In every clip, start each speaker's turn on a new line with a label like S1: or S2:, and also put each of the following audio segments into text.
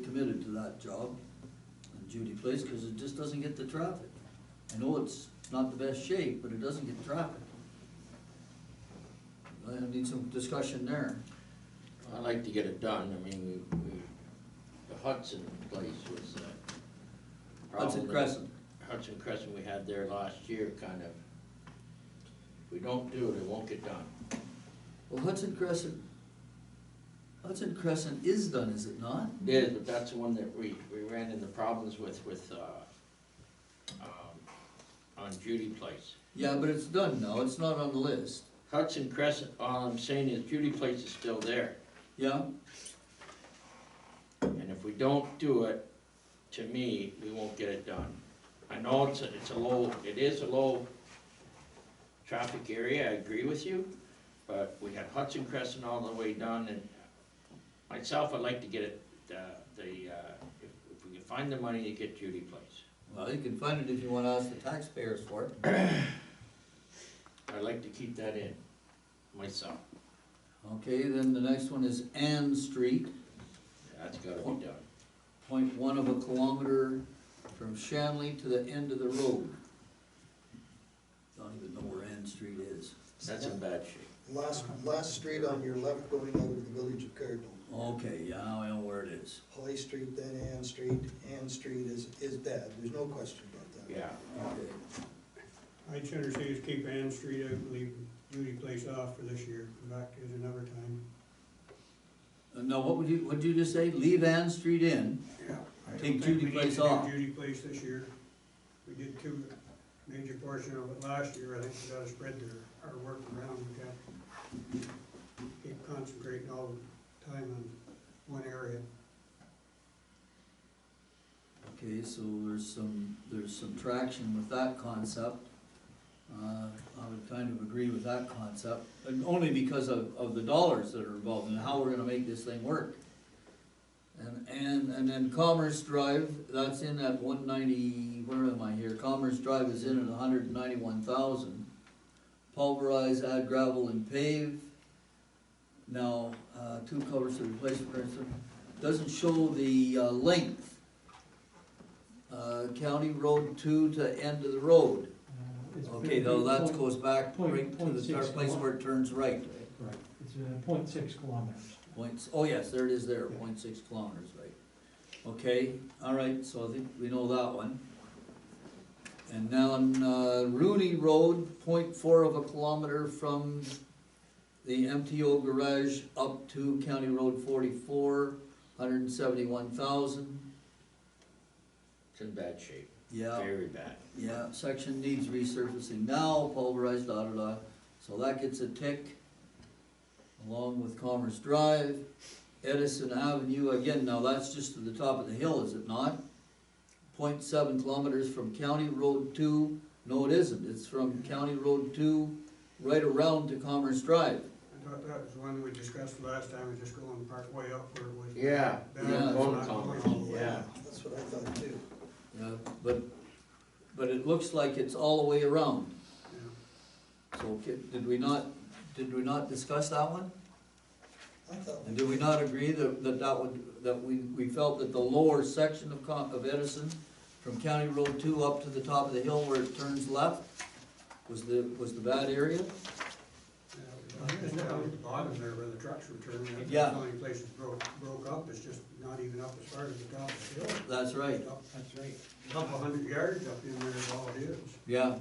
S1: committed to that job, in Judy Place, because it just doesn't get the traffic. I know it's not the best shape, but it doesn't get traffic. I need some discussion there.
S2: I'd like to get it done, I mean, we, we, the Hudson place was a problem.
S1: Hudson Crescent.
S2: Hudson Crescent we had there last year, kind of. If we don't do it, it won't get done.
S1: Well, Hudson Crescent, Hudson Crescent is done, is it not?
S2: It is, but that's the one that we, we ran into problems with, with, uh, um, on Judy Place.
S1: Yeah, but it's done now, it's not on the list.
S2: Hudson Crescent, all I'm saying is Judy Place is still there.
S1: Yeah,
S2: And if we don't do it, to me, we won't get it done. I know it's, a- it's a low, it is a low traffic area, I agree with you, but we had Hudson Crescent all the way done, and myself, I'd like to get it, uh, the, uh, if, if we can find the money to get Judy Place.
S1: well, you can find it if you wanna ask the taxpayers for it.
S2: I'd like to keep that in, myself,
S1: Okay, then the next one is Ann Street,
S2: that's gotta be done.
S1: point one of a kilometer from Shanley to the end of the road. Don't even know where Ann Street is.
S2: That's in bad shape.
S3: Last, last street on your left going out of the village of Cardinal.
S1: Okay, yeah, I know where it is.
S3: Holly Street, then Ann Street. Ann Street is, is bad, there's no question about that.
S2: Yeah,
S1: Okay,
S4: I'd sooner see us keep Ann Street, I believe, Judy Place off for this year, come back to it another time.
S1: Uh, now, what would you, what'd you just say? Leave Ann Street in?
S4: Yeah.
S1: Take Judy Place off.
S4: Judy Place this year. We did two major portion of it last year, I think we gotta spread their, our work around, we got keep concentrating all the time on one area.
S1: Okay, so there's some, there's some traction with that concept. Uh, I would kind of agree with that concept, and only because of, of the dollars that are involved and how we're gonna make this thing work. And, and, and then Commerce Drive, that's in at one ninety, where am I here? Commerce Drive is in at hundred and ninety-one thousand. Pulverize, add gravel and pave. Now, uh, two covers to replace, for instance, doesn't show the uh, length uh, County Road two to end of the road.
S5: Uh, It's
S1: Okay, though, that
S5: point-
S1: goes back
S5: point-
S1: right to
S5: point
S1: the
S5: six
S1: start place where it turns right.
S5: Right, it's uh, point six kilometers.
S1: Points, oh yes, there it is there, point six kilometers, right. Okay, all right, so I think we know that one. And now on uh, Rooney Road, point four of a kilometer from the MTO garage up to County Road forty-four, hundred and seventy-one thousand.
S2: it's in bad shape,
S1: Yeah.
S2: very bad.
S1: Yeah, section needs resurfacing now, pulverized, da da da, so that gets a tick. Along with Commerce Drive, Edison Avenue, again, now that's just to the top of the hill, is it not? Point seven kilometers from County Road two, no it isn't, it's from County Road two right around to Commerce Drive.
S4: I thought that was the one we discussed last time, was just going part way up where it was.
S2: Yeah,
S4: That
S1: yeah,
S4: was
S2: bone
S4: not
S2: color,
S4: going.
S2: yeah.
S3: That's what I thought too.
S1: Yeah, but, but it looks like it's all the way around,
S4: Yeah.
S1: so ca- did we not, did we not discuss that one?
S3: I thought,
S1: And do we not agree that, that that would, that we, we felt that the lower section of Con, of Edison, from County Road two up to the top of the hill where it turns left, was the, was the bad area?
S4: Yeah, I think it's down at the bottom there where the trucks were turning, that's
S1: Yeah.
S4: the only place that broke, broke up, it's just not even up as far as the top of the hill.
S1: That's right,
S4: That's right. Couple hundred yards up in there is all it is.
S1: yeah.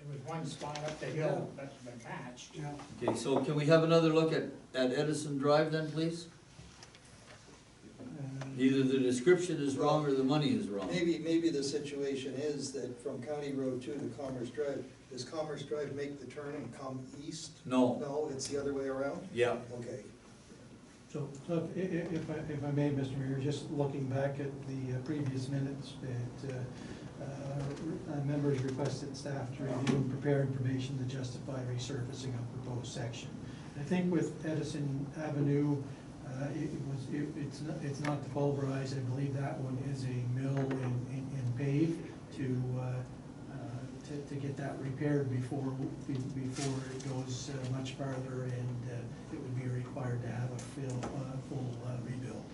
S6: There was one spot up the hill that's been patched.
S4: Yeah.
S1: Okay, so can we have another look at, at Edison Drive then, please? Either the description is wrong or the money is wrong.
S3: maybe, maybe the situation is that from County Road two to Commerce Drive, does Commerce Drive make the turn and come east?
S1: No,
S3: No, it's the other way around?
S1: yeah,
S3: Okay.
S5: So, so if, if- if I, if I may, Mr. Mayor, just looking back at the uh, previous minutes that, uh, uh, members requested staff to review and prepare information to justify resurfacing of proposed section. I think with Edison Avenue, uh, it it was, it, it's not, it's not the pulverized, I believe that one is a mill and, and and pave to, uh, uh, to, to get that repaired before, be- before it goes uh, much farther and, uh, it would be required to have a fill, uh, full uh, rebuild.